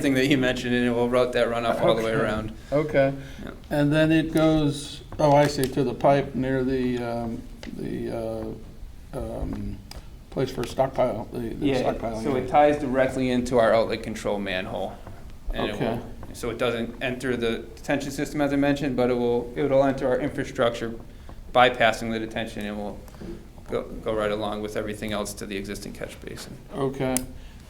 thing that you mentioned, and it will route that runoff all the way Okay. around. Okay, Yeah. and then it goes, oh, I see, to the pipe near the, um, the, uh, um, place for stockpile, the the Yeah, stockpiling. so it area. ties directly into our outlet control manhole. and it will- Okay. So it doesn't enter the detention system, as I mentioned, but it will, it'll enter our infrastructure bypassing the detention and will go, go right along with everything else to the existing catch basin. Okay,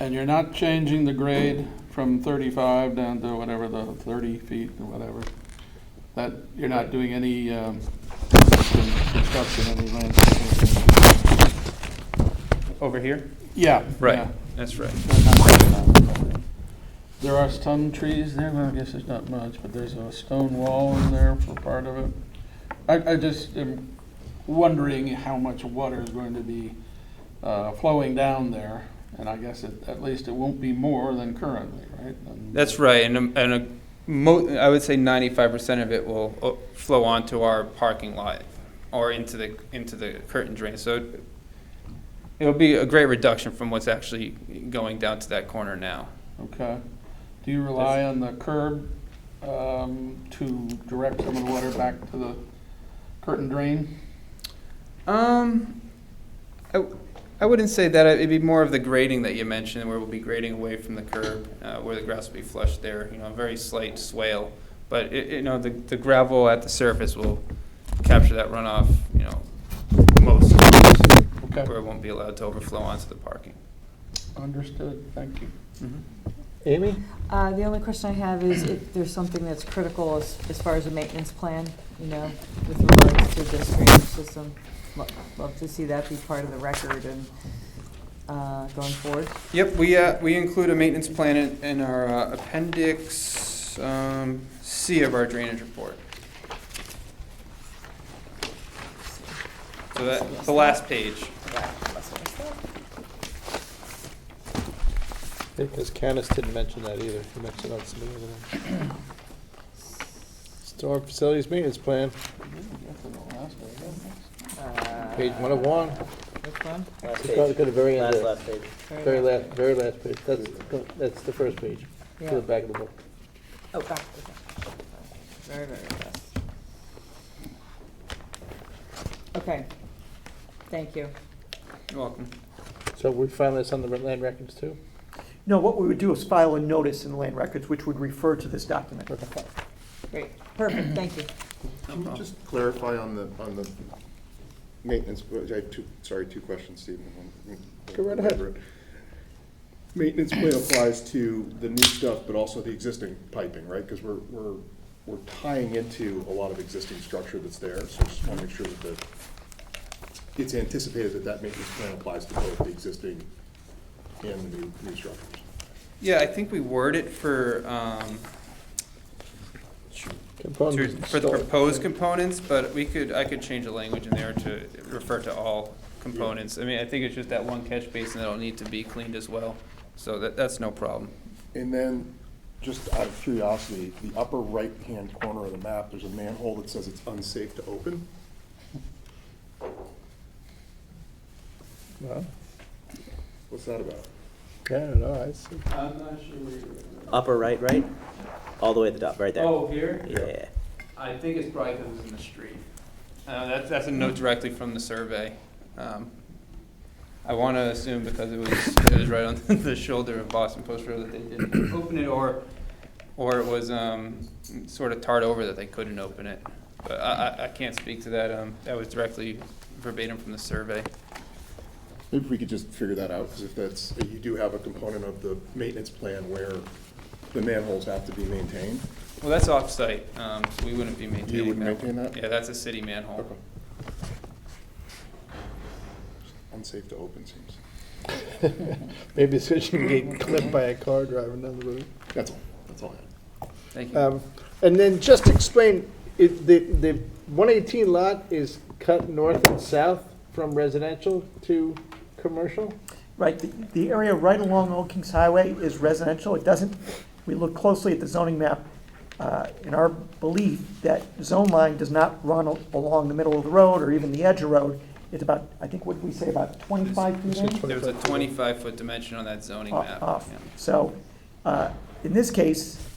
and you're not changing the grade from thirty-five down to whatever the thirty feet or whatever? That, you're not doing any, um, construction, any landscaping? Over here? Yeah. Right, yeah. that's right. There are some trees there, well, I guess there's not much, but there's a stone wall in there for part of it. I, I just am wondering how much water is going to be uh, flowing down there, and I guess it- at least it won't be more than currently, right? And- That's right, and, um, and a mo, I would say ninety-five percent of it will uh, flow onto our parking lot or into the, into the curtain drain, so it- it'll be a great reduction from what's actually going down to that corner now. Okay. Do you rely on the curb um, to direct some of the water back to the curtain drain? Um, I, w- I wouldn't say that, it'd be more of the grading that you mentioned, where we'll be grading away from the curb, uh, where the grass will be flushed there, you know, a very slight swale. But it, you know, the, the gravel at the surface will capture that runoff, you know, most, Okay, where it won't be allowed to overflow onto the parking. understood, thank you. Amy? Uh, The only question I have is if there's something that's critical as, as far as a maintenance plan, you know, with regards to this drainage system. Lo- Love to see that be part of the record and uh, going forward. Yep, we, uh, we include a maintenance plan in, in our uh, appendix, um, C of our drainage report. So that, the last page. Because Canis didn't mention that either. He mentioned that to me. but, uh, Storm facilities maintenance plan, page one of one. Which Uh, one? Last It's probably page. got the very end Last, there. last page. Sorry Very about last, very last page. That's, that's the first page, to Yeah. the back of the book. Oh, back, okay. Very, very last. Okay, thank you. You're welcome. So we found this on the land records too? No, what we would do is file a notice in land records, which would refer to this document. Great, perfect, thank you. Can you just clarify on the, on the maintenance, I have two, sorry, two questions, Stephen. Go right ahead. Maintenance plan applies to the new stuff, but also the existing piping, right? Because we're, we're, we're tying into a lot of existing structure that's there, so just want to make sure that the, it's anticipated that that maintenance plan applies to both the existing and the new, new structures. Yeah, I think we word it for, um, to- Components for the installed. proposed components, but we could, I could change the language in there to refer to all components. I mean, I think it's just that one catch basin that'll need to be cleaned as well, so that, that's no problem. And then, just out of curiosity, the upper right-hand corner of the map, there's a manhole that says it's unsafe to open. Well, What's that about? Yeah, I don't know, I see. I'm not sure where you're. Oh, Upper right, right? All the way at the top, right there. here? Yeah. I think it's probably because it's in the street. Uh, that's, that's a note directly from the survey. Um, I want to assume because it was, it was right on the shoulder of Boston Post Road that they didn't open it, or, or it was, um, sort of tarred over that they couldn't open it. But I, I, I can't speak to that, um, that was directly verbatim from the survey. Maybe we could just figure that out, because if that's, you do have a component of the maintenance plan where the manholes have to be maintained. Well, that's off-site, um, so we wouldn't be maintaining that. You wouldn't maintain one. that? Yeah, that's a city manhole. Okay. Unsafe to open seems, Maybe it's because you can get clipped by a car driving down the road. that's all, that's all I have. Thank Uh, you. Um, And then just explain, it- the, the 118 lot is cut north and south from residential to commercial? Right, the, the area right along Old Kings Highway is residential. It doesn't, we look closely at the zoning map. uh, In our belief that zone line does not run al- along the middle of the road or even the edge of road. It's about, I think, what we say, about 25 feet in? There was a twenty-five foot dimension on that zoning off- map. off. yeah. So, uh, in this case,